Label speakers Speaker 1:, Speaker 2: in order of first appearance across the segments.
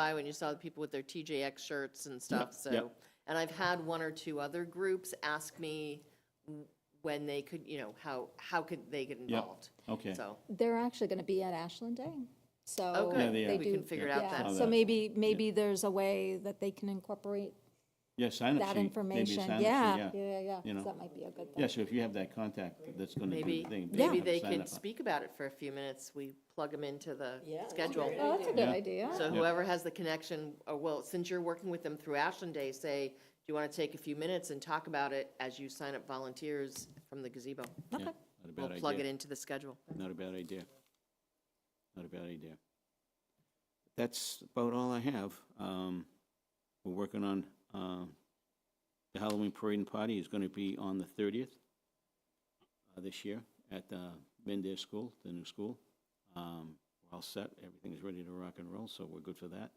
Speaker 1: by when you saw the people with their TJX shirts and stuff, so.
Speaker 2: yep.
Speaker 1: And I've had one or two other groups ask me w- when they could, you know, how, how could they get involved?
Speaker 2: okay.
Speaker 1: So,
Speaker 3: They're actually going to be at Ashland Day, so.
Speaker 1: oh,
Speaker 2: Yeah,
Speaker 1: good,
Speaker 2: they
Speaker 3: they
Speaker 2: are.
Speaker 1: we can
Speaker 3: do-
Speaker 1: figure it out
Speaker 3: yeah,
Speaker 1: then.
Speaker 3: So maybe, maybe there's a way that they can incorporate
Speaker 2: Yeah, sign up sheet.
Speaker 3: that
Speaker 2: maybe a
Speaker 3: information,
Speaker 2: sign-up sheet,
Speaker 3: yeah, yeah, yeah,
Speaker 2: You
Speaker 3: yeah,
Speaker 2: know.
Speaker 3: that might be a good
Speaker 2: Yeah,
Speaker 3: thing.
Speaker 2: so if you have that contact, that's gonna do the
Speaker 1: Maybe,
Speaker 2: thing.
Speaker 1: maybe
Speaker 2: have a
Speaker 1: they
Speaker 2: sign
Speaker 1: could
Speaker 2: up.
Speaker 1: speak about it for a few minutes, we plug them into the
Speaker 4: Yeah, that's a
Speaker 1: schedule.
Speaker 4: great
Speaker 3: Oh, that's a good
Speaker 2: Yeah.
Speaker 3: idea.
Speaker 1: So
Speaker 2: Yeah.
Speaker 1: whoever has the connection, or well, since you're working with them through Ashland Day, say, do you want to take a few minutes and talk about it as you sign up volunteers from the gazebo?
Speaker 2: Yeah, Not a
Speaker 1: We'll
Speaker 2: bad
Speaker 1: plug it
Speaker 2: idea.
Speaker 1: into the schedule.
Speaker 2: Not a bad idea. Not a bad idea. That's about all I have. Um, We're working on, um, the Halloween parade and party is gonna be on the thirtieth this year at uh, Mendez School, the new school. Um, We're all set, everything's ready to rock and roll, so we're good for that.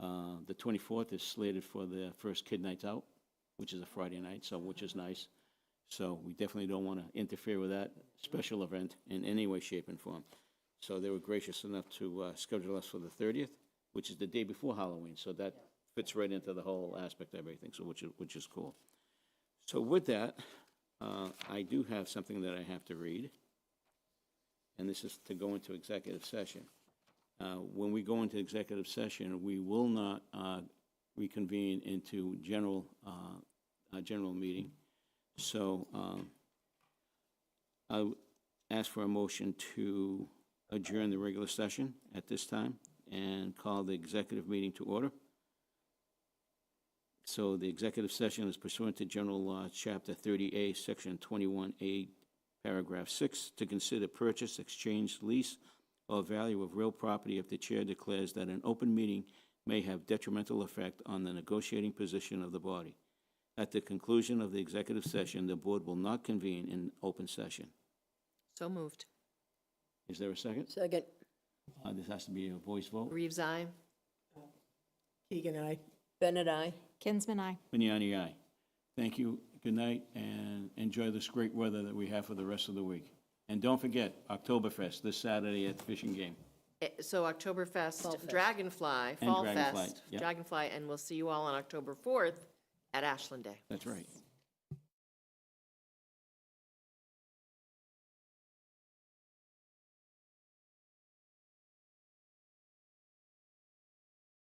Speaker 2: Uh, The twenty-fourth is slated for the first Kid Nights Out, which is a Friday night, so, which is nice. So we definitely don't want to interfere with that special event in any way, shape, and form. So they were gracious enough to uh, schedule us for the 30th, which is the day before Halloween. So that fits right into the whole aspect of everything, so which is, which is cool. So with that, uh, I do have something that I have to read. And this is to go into executive session. Uh, When we go into executive session, we will not uh, reconvene into general, uh, uh, general meeting. So um, I w- ask for a motion to adjourn the regular session at this time and call the executive meeting to order. So the executive session is pursuant to General Law, Chapter 30A, Section 21A, Paragraph 6, to consider purchase, exchange, lease, or value of real property if the chair declares that an open meeting may have detrimental effect on the negotiating position of the body. At the conclusion of the executive session, the board will not convene in open session.
Speaker 1: So moved.
Speaker 2: Is there a second?
Speaker 4: Second.
Speaker 2: Uh, This has to be a voice vote.
Speaker 1: Reeves, aye.
Speaker 4: Keegan, I. Bennett, I.
Speaker 3: Kinsman, I.
Speaker 2: Vignani, aye. Thank you, good night, and enjoy this great weather that we have for the rest of the week. And don't forget, Oktoberfest this Saturday at the Fishing Game.
Speaker 1: Eh, So Oktoberfest, Dragonfly, Fall
Speaker 2: Dragonfly,
Speaker 1: Fest,
Speaker 2: yep.
Speaker 1: Dragonfly, and we'll see you all on October 4th at Ashland Day.
Speaker 2: That's right.